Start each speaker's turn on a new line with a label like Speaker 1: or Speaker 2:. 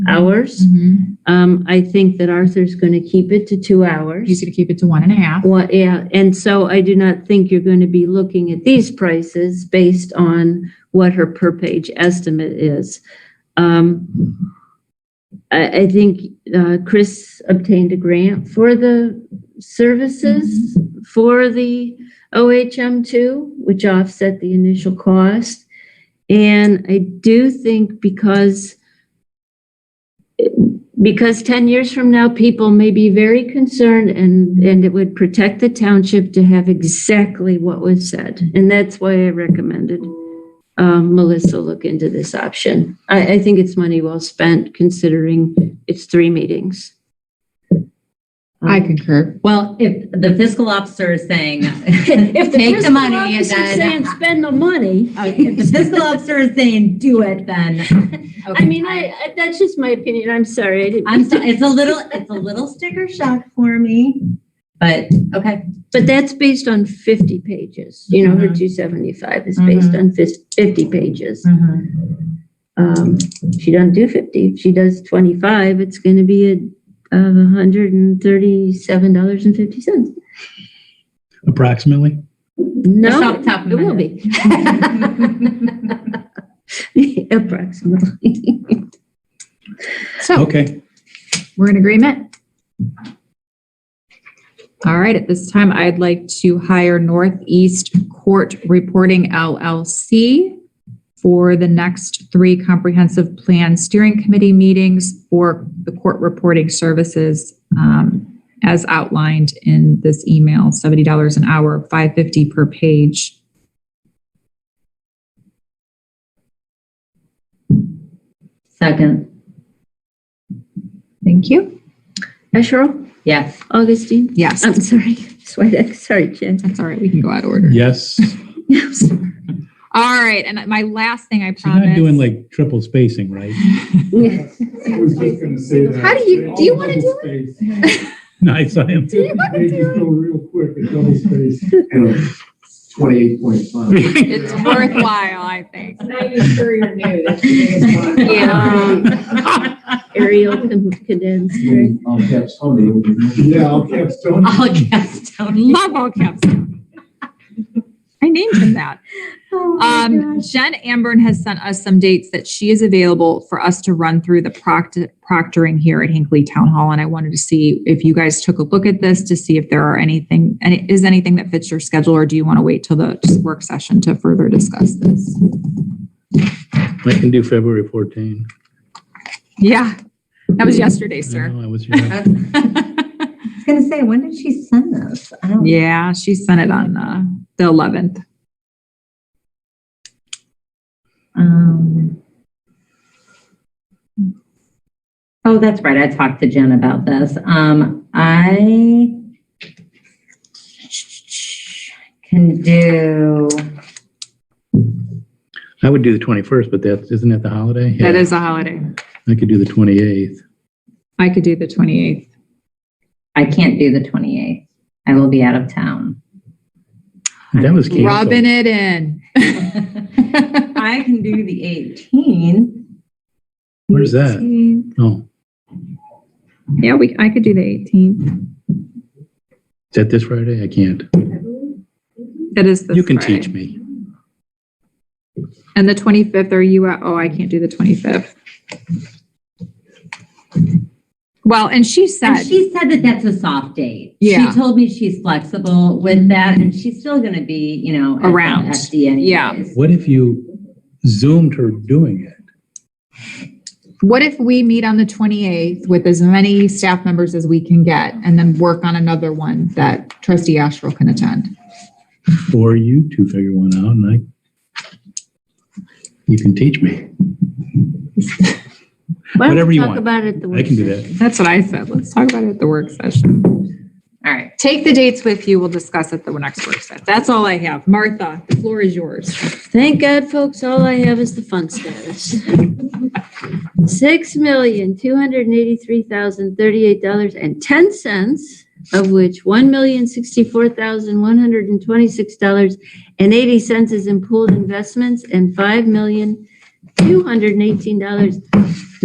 Speaker 1: hours.
Speaker 2: Mhm.
Speaker 1: Um, I think that Arthur's going to keep it to two hours.
Speaker 2: He's going to keep it to one and a half.
Speaker 1: Well, yeah, and so I do not think you're going to be looking at these prices based on what her per page estimate is. Um, I, I think, uh, Chris obtained a grant for the services for the OHM two, which offset the initial cost. And I do think because because 10 years from now, people may be very concerned and, and it would protect the township to have exactly what was said. And that's why I recommended um, Melissa look into this option. I, I think it's money well spent considering it's three meetings. Um,
Speaker 2: I
Speaker 1: Mm.
Speaker 2: concur.
Speaker 3: Well, if the fiscal officer is saying,
Speaker 1: If
Speaker 3: make the
Speaker 1: fiscal
Speaker 3: money and
Speaker 1: officer's
Speaker 3: then,
Speaker 1: Saying spend the money.
Speaker 3: if the fiscal officer is saying, do it, then.
Speaker 1: I mean, I, I- that's just my opinion. I'm sorry. I didn't-
Speaker 3: I'm sorry, it's a little, it's a little sticker shock for me, but, okay.
Speaker 1: But that's based on 50 pages. You know, her
Speaker 3: Mm-hmm.
Speaker 1: 275 is based on fis- 50 pages.
Speaker 3: Mm-hmm.
Speaker 1: Um, she doesn't do 50. If she does 25, it's going to be a, uh, $137.50.
Speaker 4: approximately.
Speaker 3: Just
Speaker 1: No,
Speaker 3: off the top of
Speaker 1: it
Speaker 3: my
Speaker 1: will
Speaker 3: head.
Speaker 1: be. Approximately.
Speaker 2: So
Speaker 4: Okay.
Speaker 2: we're in agreement. All right, at this time, I'd like to hire Northeast Court Reporting LLC for the next three comprehensive plan steering committee meetings for the court reporting services um, as outlined in this email, $70 an hour, 550 per page.
Speaker 3: Second,
Speaker 2: Thank you.
Speaker 1: Asherle?
Speaker 3: yes.
Speaker 1: Augustine?
Speaker 2: Yes,
Speaker 1: I'm sorry. Swedek, sorry, Jen.
Speaker 2: that's all right. We can go out of order.
Speaker 4: Yes. She's
Speaker 1: I'm sorry.
Speaker 2: All right, and my last thing I promise.
Speaker 4: not doing like triple spacing, right?
Speaker 5: I was just gonna say that.
Speaker 2: How do you- do you wanna do
Speaker 5: it?
Speaker 4: No, I saw him.
Speaker 5: Fifty pages go real quick, a double space. Twenty-eight point five.
Speaker 2: It's worthwhile, I think.
Speaker 6: Not even sure you're new, that's the biggest one.
Speaker 1: Yeah. Ariel con- condensed.
Speaker 4: Mm.
Speaker 1: right?
Speaker 7: I'll
Speaker 5: Um,
Speaker 7: have somebody.
Speaker 5: Yeah, I'll capstone.
Speaker 3: All caps, Tony.
Speaker 2: Love all caps. I named him that. Um, Jen Amburn has sent us some dates that she is available for us to run through the proctor- proctoring here at Hinkley Town Hall. And I wanted to see if you guys took a look at this to see if there are anything, and is anything that fits your schedule, or do you want to wait till the work session to further discuss this?
Speaker 4: I can do February 14.
Speaker 2: Yeah, that was yesterday,
Speaker 4: I
Speaker 2: sir.
Speaker 4: know, I was here.
Speaker 3: I was gonna say, when did she send this? I don't.
Speaker 2: Yeah, she sent it on uh, the 11th.
Speaker 3: Um. Oh, that's right. I talked to Jen about this. Um, I can do,
Speaker 4: I would do the 21st, but that, isn't that the holiday?
Speaker 2: That
Speaker 4: Yeah.
Speaker 2: is a holiday.
Speaker 4: I could do the 28th.
Speaker 2: I could do the 28th.
Speaker 3: I can't do the 28th. I will be out of town.
Speaker 4: That was canceled.
Speaker 2: Rubbing it in.
Speaker 3: I can do the 18th.
Speaker 4: Where's that? Oh,
Speaker 2: Yeah, we, I could do the 18th.
Speaker 4: is that this Friday? I can't.
Speaker 2: That is this
Speaker 4: You can
Speaker 2: Friday.
Speaker 4: teach me.
Speaker 2: And the 25th, are you, out? oh, I can't do the 25th. Well, and she
Speaker 3: And
Speaker 2: said,
Speaker 3: she said that that's a soft date.
Speaker 2: Yeah.
Speaker 3: She told me she's flexible with that and she's still going to be, you know. at the
Speaker 2: Around.
Speaker 3: FD
Speaker 2: Yeah.
Speaker 3: anyways.
Speaker 4: What if you zoomed her doing it?
Speaker 2: what if we meet on the 28th with as many staff members as we can get and then work on another one that trustee Asherle can attend?
Speaker 4: Or you two figure one out and I, you can teach me.
Speaker 1: Why don't
Speaker 4: Whatever
Speaker 1: we
Speaker 4: you
Speaker 1: talk
Speaker 4: want.
Speaker 1: about it at the
Speaker 4: I
Speaker 1: work
Speaker 4: can do
Speaker 1: session?
Speaker 4: that.
Speaker 2: That's what I said. Let's talk about it at the work session.
Speaker 3: All right.
Speaker 2: Take the dates with you. We'll discuss at the next work session. That's all I have. Martha, the floor is yours.
Speaker 1: Thank God, folks, all I have is the fund status. Six million, two hundred and eighty-three thousand, thirty-eight dollars and ten cents, of which one million, sixty-four thousand, one hundred and twenty-six dollars and eighty cents is in pooled investments and five million, two hundred and eighteen dollars